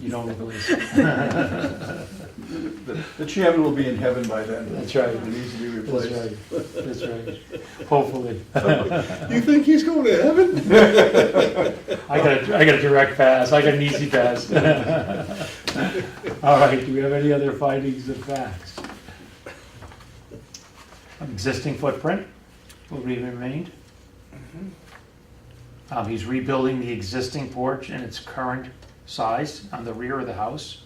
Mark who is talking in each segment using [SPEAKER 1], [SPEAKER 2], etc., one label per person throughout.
[SPEAKER 1] you don't release.
[SPEAKER 2] The the chairman will be in heaven by then.
[SPEAKER 1] That's right.
[SPEAKER 2] It needs to be
[SPEAKER 1] That's
[SPEAKER 2] replaced.
[SPEAKER 1] right, that's right, hopefully.
[SPEAKER 3] You think he's going to heaven?
[SPEAKER 1] I got a, I got a direct pass, I got an easy pass. All right, do we have any other findings of facts? Existing footprint will be remained. Um, he's rebuilding the existing porch in its current size on the rear of the house,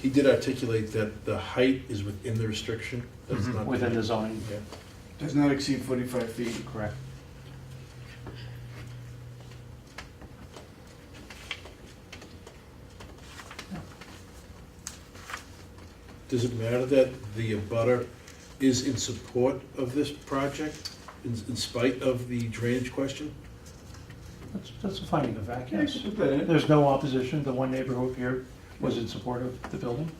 [SPEAKER 3] He did articulate that the height is within the restriction. That's not-
[SPEAKER 1] within the zoning,
[SPEAKER 3] Yeah.
[SPEAKER 2] Does not exceed 45 feet.
[SPEAKER 1] correct?
[SPEAKER 3] Does it matter that the abutter is in support of this project in in spite of the drainage question?
[SPEAKER 1] That's, that's a finding of fact,
[SPEAKER 2] Yeah, you
[SPEAKER 1] yes.
[SPEAKER 2] can put that in.
[SPEAKER 1] There's no opposition, the one neighbor who appeared was in support of the building.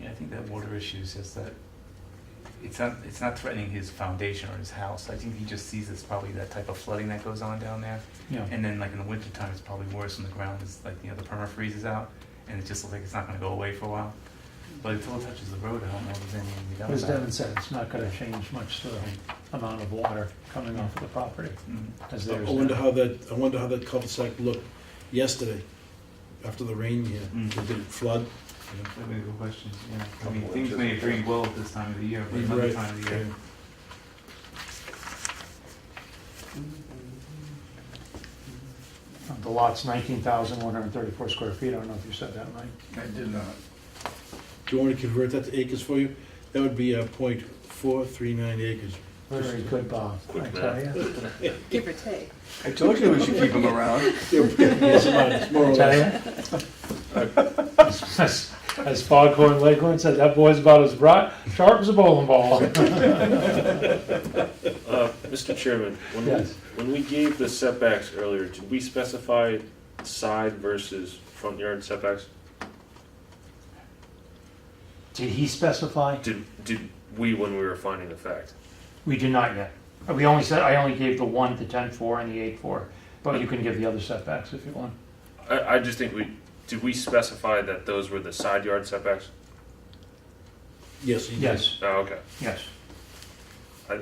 [SPEAKER 4] Yeah, I think that water issue is just that it's not it's not threatening his foundation or his house. I think he just sees it's probably that type of flooding that goes on down there.
[SPEAKER 1] Yeah,
[SPEAKER 4] And then like in the wintertime it's probably worse when the ground is like you know the perma freezes out and it just looks like it's not gonna go away for a while. But until it touches the road, I don't know if there's anything to be done
[SPEAKER 1] but as
[SPEAKER 4] about
[SPEAKER 1] Devin
[SPEAKER 4] it.
[SPEAKER 1] said, it's not gonna change much the amount of water coming off of the property,
[SPEAKER 4] Mm.
[SPEAKER 1] as
[SPEAKER 3] I
[SPEAKER 1] there's.
[SPEAKER 3] wonder how that, I wonder how that cul-de-sac looked yesterday after the rain here.
[SPEAKER 4] Mm.
[SPEAKER 3] Did it flood?
[SPEAKER 4] That would be a good question, yeah. I mean,
[SPEAKER 2] Couple
[SPEAKER 4] things may
[SPEAKER 2] inches.
[SPEAKER 4] drain well at this time of the year, but
[SPEAKER 3] Right.
[SPEAKER 4] another time of the year.
[SPEAKER 1] The lot's nineteen thousand one hundred and thirty-four square feet, I don't know if you said that, Mike.
[SPEAKER 2] I did not.
[SPEAKER 3] Do you want me to convert that to acres for you? That would be uh, .439 acres.
[SPEAKER 1] Very good, Bob, I tell you.
[SPEAKER 5] Give or take.
[SPEAKER 2] I told you we should keep him around.
[SPEAKER 3] Yes, about- it's more or
[SPEAKER 1] I
[SPEAKER 3] less.
[SPEAKER 1] tell you. As as Foghorn Leghorn said, that boy's about as bright, sharp as a bowling ball.
[SPEAKER 6] Uh, Mr. Chairman, when we,
[SPEAKER 1] Yes.
[SPEAKER 6] when we gave the setbacks earlier, did we specify side versus front yard setbacks?
[SPEAKER 1] Did he specify?
[SPEAKER 6] Did, did we, when we were finding the fact?
[SPEAKER 1] We do not yet. Uh, We only said, I only gave the one, the ten four and the eight four, but you can give the other setbacks if you want.
[SPEAKER 6] I, I just think we, did we specify that those were the side yard setbacks?
[SPEAKER 3] Yes. you did.
[SPEAKER 1] Yes,
[SPEAKER 6] Oh, okay.
[SPEAKER 1] yes.
[SPEAKER 6] I,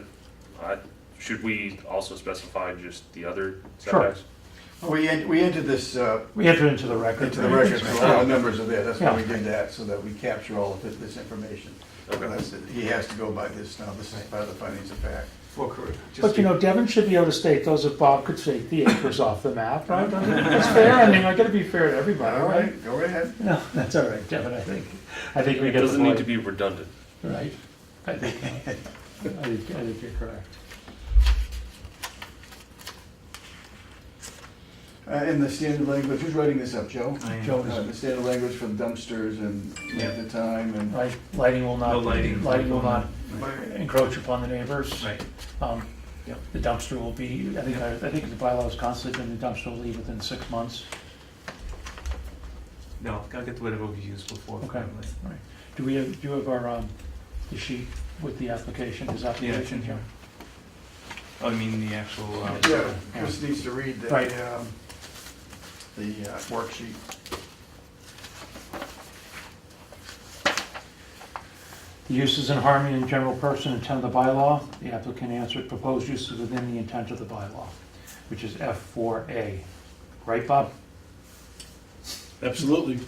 [SPEAKER 6] should we also specify just the other
[SPEAKER 1] Sure.
[SPEAKER 6] setbacks?
[SPEAKER 2] We en- we entered this uh,
[SPEAKER 1] We entered into the record.
[SPEAKER 2] into the record, so all the numbers are there. That's why we
[SPEAKER 1] Yeah.
[SPEAKER 2] did that, so that we capture all of thi- this information.
[SPEAKER 6] Okay.
[SPEAKER 2] That's it. He has to go by this now. This is part of the findings of fact.
[SPEAKER 4] Well, correct.
[SPEAKER 1] But you know, Devin should be able to state those if Bob could state the acres off the map, right? That's fair, I mean, I gotta be fair to everybody,
[SPEAKER 2] All
[SPEAKER 1] right?
[SPEAKER 2] right, go right ahead.
[SPEAKER 1] No, that's all right, Devin, I think, I think we
[SPEAKER 6] It
[SPEAKER 1] get the
[SPEAKER 6] doesn't need to
[SPEAKER 1] point,
[SPEAKER 6] be redundant.
[SPEAKER 1] right? I think, I think, I think you're correct.
[SPEAKER 2] Uh, In the standard language, who's writing this up, Joe?
[SPEAKER 4] I am.
[SPEAKER 2] Joe, uh, the standard language for dumpsters and
[SPEAKER 4] Yeah.
[SPEAKER 2] at the time and.
[SPEAKER 1] Right, lighting will not.
[SPEAKER 4] No lighting.
[SPEAKER 1] Lighting will not
[SPEAKER 4] Right.
[SPEAKER 1] encroach upon the neighbors.
[SPEAKER 4] Right.
[SPEAKER 1] Um,
[SPEAKER 4] Yep.
[SPEAKER 1] The dumpster will be, I think, I think the bylaw is constantly, and the dumpster will leave within six months.
[SPEAKER 4] No, I'll get to whatever we used before.
[SPEAKER 1] Okay. All right. Do we have, do you have our, um, the sheet with the application, his
[SPEAKER 4] Yeah, it's
[SPEAKER 1] application
[SPEAKER 4] in
[SPEAKER 1] here?
[SPEAKER 4] here. Oh, you mean the actual, uh,
[SPEAKER 2] Yeah, Chris needs to read the,
[SPEAKER 1] Right.
[SPEAKER 2] um, the uh, worksheet.
[SPEAKER 1] The use is in harmony in general person intent of the bylaw. The applicant answered proposed use is within the intent of the bylaw, which is F four A. Right, Bob?
[SPEAKER 3] Absolutely.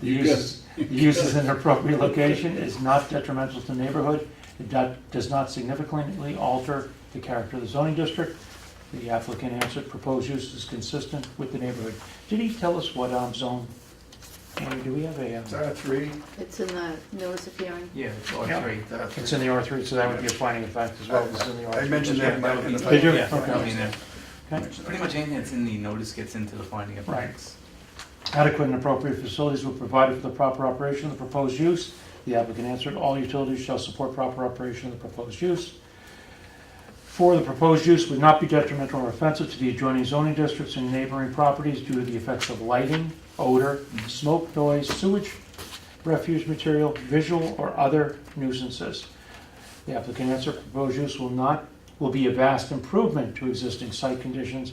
[SPEAKER 1] The
[SPEAKER 3] You
[SPEAKER 1] use, is- the use is in an appropriate location, is not detrimental to the neighborhood, it do- does not significantly alter the character of the zoning district. The applicant answered, proposed use is consistent with the neighborhood. Did he tell us what um, zone? Andy, do we have a,
[SPEAKER 2] It's
[SPEAKER 1] um,
[SPEAKER 2] R three.
[SPEAKER 5] It's in the notice of hearing.
[SPEAKER 4] yeah, it's all
[SPEAKER 1] Yeah.
[SPEAKER 4] three.
[SPEAKER 1] it's in the R3, so that would be a finding of fact as well, it's in the R3.
[SPEAKER 2] I mentioned that in my. in the-
[SPEAKER 1] Did you?
[SPEAKER 4] Yeah,
[SPEAKER 1] Okay.
[SPEAKER 4] I mean, uh,
[SPEAKER 1] Okay.
[SPEAKER 4] pretty much anything that's in the notice gets into the finding of
[SPEAKER 1] Right.
[SPEAKER 4] facts.
[SPEAKER 1] Adequate and appropriate facilities were provided for the proper operation of the proposed use. The applicant answered, all utilities shall support proper operation of the proposed use. Four, the proposed use would not be detrimental or offensive to the adjoining zoning districts and neighboring properties due to the effects of lighting, odor, smoke, noise, sewage, refuse material, visual or other nuisances. The applicant answered, proposed use will not, will be a vast improvement to existing site conditions